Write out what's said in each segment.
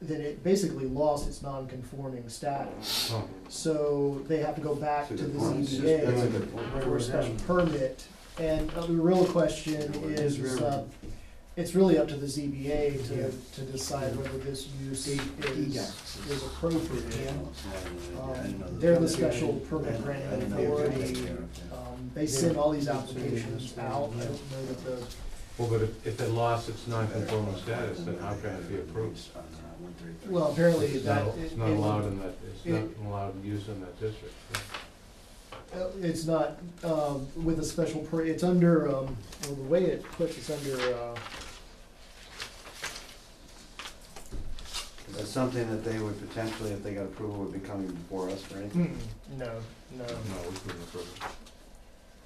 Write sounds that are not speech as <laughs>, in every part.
then it basically lost its non-conforming status. Oh. So they have to go back to See, the the point is- ZBA that's a good point. for a special permit. And uh, the real question is, uh, it's really up to the ZBA Yeah. to, to decide whether this use is, is Yeah. appropriate. Um, Um, They're the special permit I granting didn't know they were authority. taking care Um, They send all these applications out. I don't know that the Well, but if, if it lost its non-conforming status, then how can it be approved? Well, apparently It's that. not, it's not it- allowed in that, it's it- Oh. not allowed use in that district. uh, It's not, um, with a special per, it's under, um, well, the way it puts, it's under, uh, That's something that they would potentially, if they got approval, would be coming before us for anything. mm, no, no, No, we couldn't approve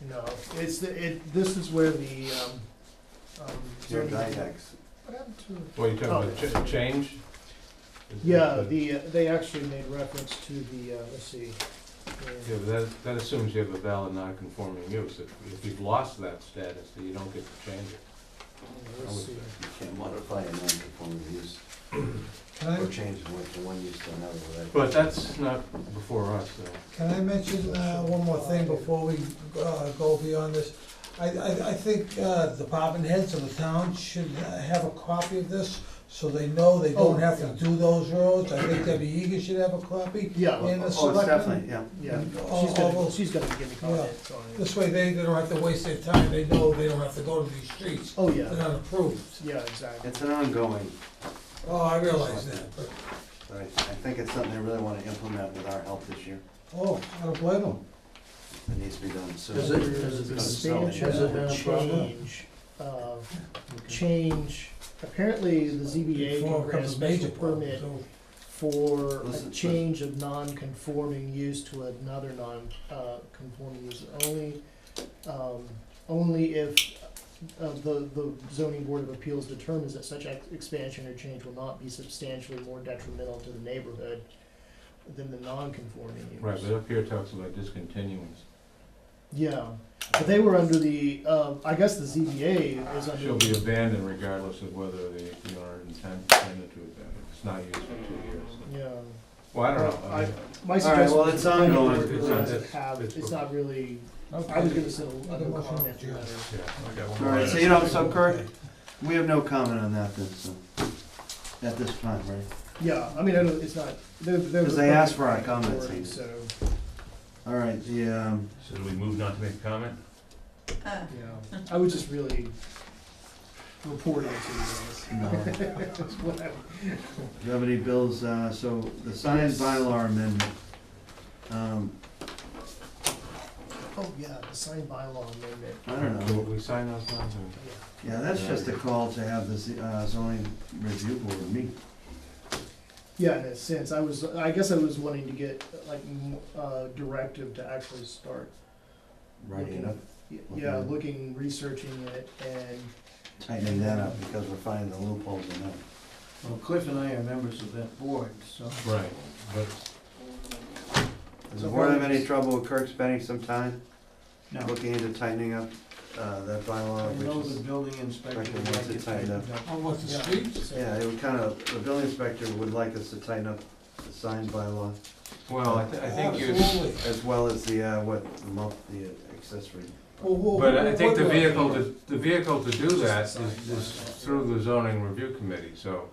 it. no. It's, the it, this is where the, um, um. is there Your anything- Didex. What happened to- Well, you're talking about Oh. cha- change? Is it- Yeah, the, uh, they actually made reference to the, uh, let's see. Yeah, but that, that assumes you have a valid non-conforming use. If, if you've lost that status, then you don't get to change it. Let's see. You can't modify a non-conforming use Can I, or change it from one use to another without. But that's not before us, though. can I mention, uh, one more thing before we, uh, go beyond this? I, I, I think, uh, department heads of the town should uh, have a copy of this, so they know they Oh, don't have to yeah. do those roads. I think Debbie Egan should have a copy. Yeah, And the Oh, it's selectmen, definitely, yeah. yeah, all- she's all gonna, those- she's gonna give me comments on it. this way they, they don't have to waste their time, they know they don't have to go to these streets, Oh, they're yeah, not approved. yeah, exactly. It's an ongoing, Oh, I realize that, but, but I, I think it's something they really wanna implement with our help this year. oh, I don't blame them. It needs to be done soon. Does it- does it- has it been a problem? Change, uh, change, apparently the ZBA Before can grant a it becomes a major special problem, permit so- for a Listen, change of non-conforming use to another non, uh, conforming use only, um, only if, uh, the, the zoning board of appeals determines that such ex- expansion or change will not be substantially more detrimental to the neighborhood than the non-conforming use. Right, but up here it talks about discontinuance. Yeah, but they were under the, uh, I guess the ZBA is She'll under, be abandoned regardless of whether the, the owner intend- intended to abandon. It's not used for two years. yeah. Well, I don't know. I mean, My All right, suggestion well, was it's the planning ongoing. board really It's- doesn't it's- have, it's- it's not really, Okay. I was gonna send a Make a a motion. comment letter. yeah, I got one All more right, item. so you know, so Kirk, we have no comment on that then, so, at this time, right? Yeah, I mean, I don't, it's not, they're, they're. 'Cause they asked for our comments, Authority, Andy. So, All right, the, um, So do we move not to make a comment? yeah, I would just really report it to you guys. no. That's what I- Do you have any bills, uh, so the signed bylaw amendment, um, Oh, yeah, the signed bylaw amendment, I don't know. Will we sign those now? or- yeah. Yeah, that's just a call to have the z- uh, zoning review board meet. Yeah, in a sense, I was, I guess I was wanting to get like m- uh, directive to actually start, Writing it up, y- yeah, Okay. looking, researching it and, tightening that up because we're finding the loopholes in that. Well, Cliff and I are members of that board, so. Right, but Does the board have any trouble with Kirk spending some time No. looking into tightening up, uh, that bylaw, which is, building inspector would like it tightened up. On what, the streets? so- yeah, it would kind of, the building inspector would like us to tighten up the signed bylaw Well, I, th- I think you, Absolutely. as well as the, uh, what, the month, the accessory. Well, well, but I think the what- vehicle, to- the vehicle to do that is, is through the zoning review committee, so,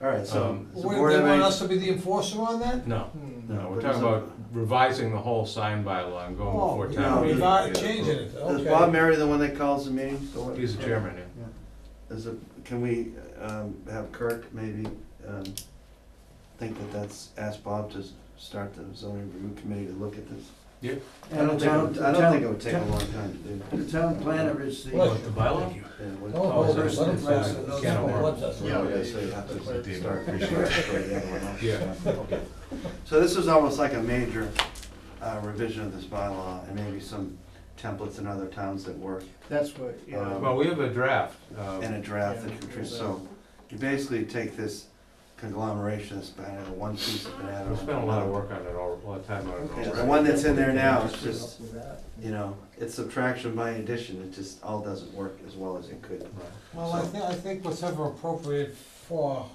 All right, so, Um, does the What, board they have want any? us to be the enforcer on that? no. Hmm. No, we're but talking is it- about revising the whole sign bylaw and going Oh, before we town. are we're meeting. not Yeah. changing it, Is Bob okay. Mary the one that calls the meetings? So what- He's the chairman, yeah. Is it, can we, um, have Kirk maybe, um, think that that's, ask Bob to s- start the zoning review committee to look at this? Yeah. I don't think, I don't think it would take a long time to do. The town planner is the. What, the Oh, bylaw? Yeah, what- Don't hold Oh, it, is let that- him pass it, is that- those can of people worms? want us. Yeah, okay, so you have to That's the start <laughs> research for the other one else. Yeah. Okay. So this is almost like a major uh, revision of this bylaw and maybe some templates in other towns that work That's what, yeah, Um, Well, we have a draft, uh, and a draft that can, so you basically take this conglomeration, this banana, one piece of banana. we spent a lot of work on it, all- a lot of time on it Yeah, already. the one that's in there now is just, you know, it's subtraction by addition, it just all doesn't work as well as it could. Right. Well, I think, I think whatever appropriate for